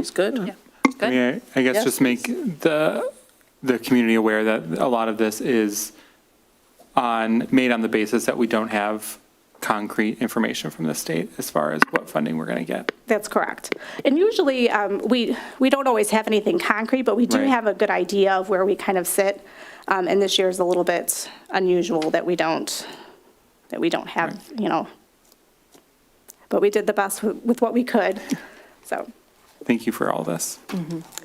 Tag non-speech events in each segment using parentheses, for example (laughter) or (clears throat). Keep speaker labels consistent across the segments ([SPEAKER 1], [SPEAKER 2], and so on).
[SPEAKER 1] It's good.
[SPEAKER 2] I
[SPEAKER 1] Good.
[SPEAKER 2] mean, I I guess
[SPEAKER 1] Yes,
[SPEAKER 2] just make the, the community aware that a lot of this is on, made on the basis that we don't have concrete information from the state as far as what funding we're going to get.
[SPEAKER 3] That's correct. And usually, um, we, we don't always have anything concrete, but we do
[SPEAKER 2] Right.
[SPEAKER 3] have a good idea of where we kind of sit. Um, And this year is a little bit unusual that we don't, that we don't have, you know. But we did the best with with what we could, so,
[SPEAKER 2] Thank you for all this.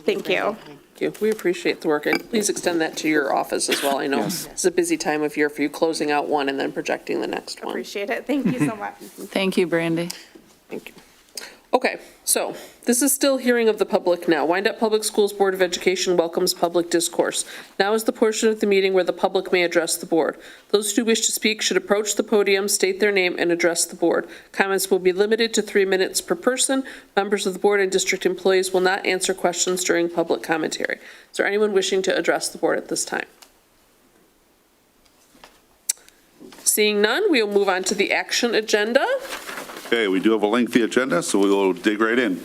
[SPEAKER 3] thank you.
[SPEAKER 1] Thank you. We appreciate the work, and please extend that to your office as well. I know it's a busy time of year for you, closing out one and then projecting the next one.
[SPEAKER 3] Appreciate it. Thank you so much.
[SPEAKER 4] Thank you, Brandy.
[SPEAKER 1] Thank you. Okay, so this is still hearing of the public now. Wyandotte Public Schools Board of Education welcomes public discourse. Now is the portion of the meeting where the public may address the board. Those who wish to speak should approach the podium, state their name, and address the board. Comments will be limited to three minutes per person. Members of the board and district employees will not answer questions during public commentary. Is there anyone wishing to address the board at this time? Seeing none, we will move on to the action agenda.
[SPEAKER 5] Okay, we do have a lengthy agenda, so we will dig right in.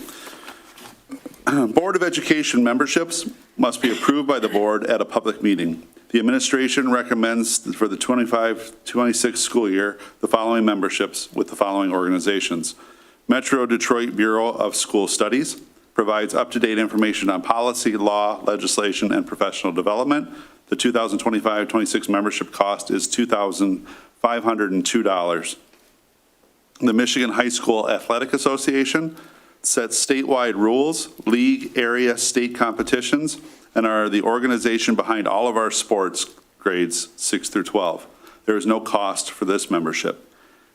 [SPEAKER 5] (clears throat) Board of Education memberships must be approved by the board at a public meeting. The administration recommends for the 25-26 school year, the following memberships with the following organizations. Metro Detroit Bureau of School Studies provides up-to-date information on policy, law, legislation, and professional development. The 2025-26 membership cost is $2,502. The Michigan High School Athletic Association sets statewide rules, league, area, state competitions, and are the organization behind all of our sports grades 6 through 12. There is no cost for this membership.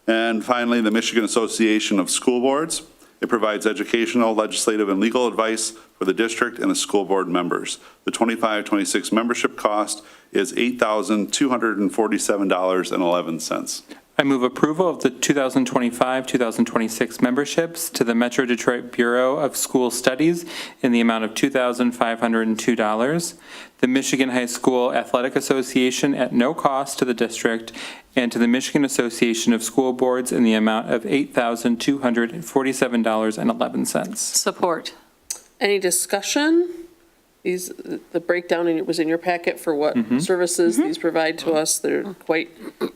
[SPEAKER 5] And finally, the Michigan Association of School Boards. It provides educational, legislative, and legal advice for the district and the school board members. The 25-26 membership cost is $8,247.11.
[SPEAKER 2] I move approval of the 2025-2026 memberships to the Metro Detroit Bureau of School Studies in the amount of $2,502, the Michigan High School Athletic Association at no cost to the district, and to the Michigan Association of School Boards in the amount of $8,247.11.
[SPEAKER 4] Support.
[SPEAKER 1] Any discussion? These, the breakdown in- was in your packet for what services
[SPEAKER 6] Mm-hmm.
[SPEAKER 1] these provide to us.
[SPEAKER 6] Mm.
[SPEAKER 1] They're quite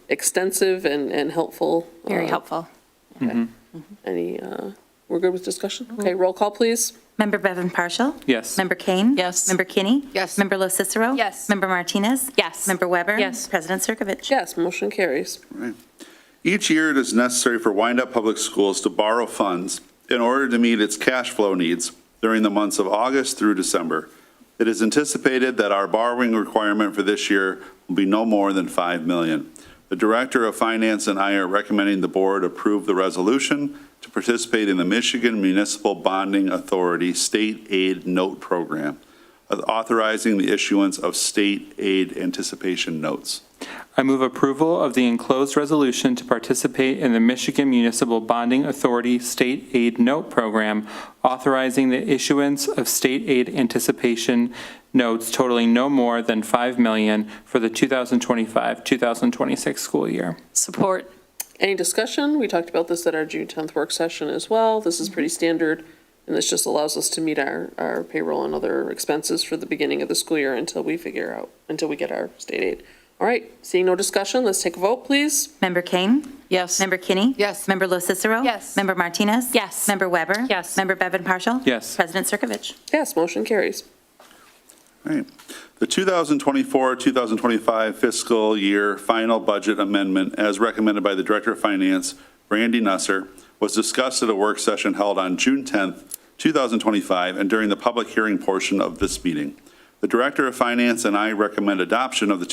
[SPEAKER 1] extensive and, and helpful.
[SPEAKER 6] Very
[SPEAKER 1] Uh,
[SPEAKER 6] helpful.
[SPEAKER 1] Any, uh, we're good with discussion?
[SPEAKER 6] Mm-hmm.
[SPEAKER 1] Okay, roll call, please.
[SPEAKER 7] Member Bevan Partial?
[SPEAKER 2] Yes.
[SPEAKER 7] Member Kane?
[SPEAKER 4] Yes.
[SPEAKER 7] Member Kinney?
[SPEAKER 6] Yes.
[SPEAKER 7] Member Lo Cicero?
[SPEAKER 6] Yes.
[SPEAKER 7] Member Martinez?
[SPEAKER 6] Yes.
[SPEAKER 7] Member Weber?
[SPEAKER 6] Yes.
[SPEAKER 7] President Circovich?
[SPEAKER 1] Yes, motion carries.
[SPEAKER 5] Each year, it is necessary for Wyandotte Public Schools to borrow funds in order to meet its cash flow needs during the months of August through December. It is anticipated that our borrowing requirement for this year will be no more than 5 million. The Director of Finance and I are recommending the board approve the resolution to participate in the Michigan Municipal Bonding Authority State Aid Note Program, authorizing the issuance of state aid anticipation notes.
[SPEAKER 2] I move approval of the enclosed resolution to participate in the Michigan Municipal Bonding Authority State Aid Note Program, authorizing the issuance of state aid anticipation notes totaling no more than 5 million for the 2025-2026 school year.
[SPEAKER 4] Support.
[SPEAKER 1] Any discussion? We talked about this at our June 10th work session as well. This is pretty standard, and this just allows us to meet our, our payroll and other expenses for the beginning of the school year until we figure out, until we get our state aid. All right, seeing no discussion, let's take a vote, please.
[SPEAKER 7] Member Kane?
[SPEAKER 4] Yes.
[SPEAKER 7] Member Kinney?
[SPEAKER 6] Yes.
[SPEAKER 7] Member Lo Cicero?
[SPEAKER 6] Yes.
[SPEAKER 7] Member Martinez?
[SPEAKER 6] Yes.
[SPEAKER 7] Member Weber?
[SPEAKER 6] Yes.
[SPEAKER 7] Member Bevan Partial?
[SPEAKER 2] Yes.
[SPEAKER 7] President Circovich?
[SPEAKER 1] Yes, motion carries.
[SPEAKER 5] All right. The 2024-2025 fiscal year final budget amendment, as recommended by the Director of Finance, Randy Nusser, was discussed at a work session held on June 10th, 2025, and during the public hearing portion of this meeting. The Director of Finance and I recommend adoption of the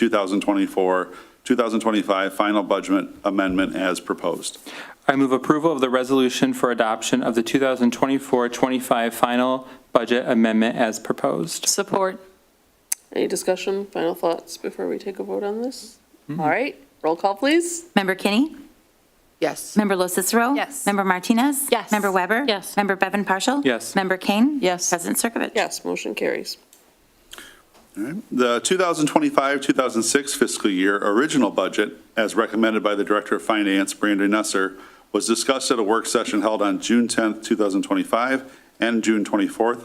[SPEAKER 5] 2024-2025 final budget amendment as proposed.
[SPEAKER 2] I move approval of the resolution for adoption of the 2024-25 final budget amendment as proposed.
[SPEAKER 4] Support.
[SPEAKER 1] Any discussion, final thoughts before we take a vote on this? All right, roll call, please.
[SPEAKER 7] Member Kinney?
[SPEAKER 6] Yes.
[SPEAKER 7] Member Lo Cicero?
[SPEAKER 6] Yes.
[SPEAKER 7] Member Martinez?
[SPEAKER 6] Yes.
[SPEAKER 7] Member Weber?
[SPEAKER 4] Yes.
[SPEAKER 7] Member Bevan Partial?
[SPEAKER 2] Yes.
[SPEAKER 7] Member Kane?
[SPEAKER 4] Yes.
[SPEAKER 7] President Circovich?
[SPEAKER 1] Yes, motion carries.
[SPEAKER 5] The 2025-2006 fiscal year original budget, as recommended by the Director of Finance, Brandon Nusser, was discussed at a work session held on June 10, 2025, and June 24th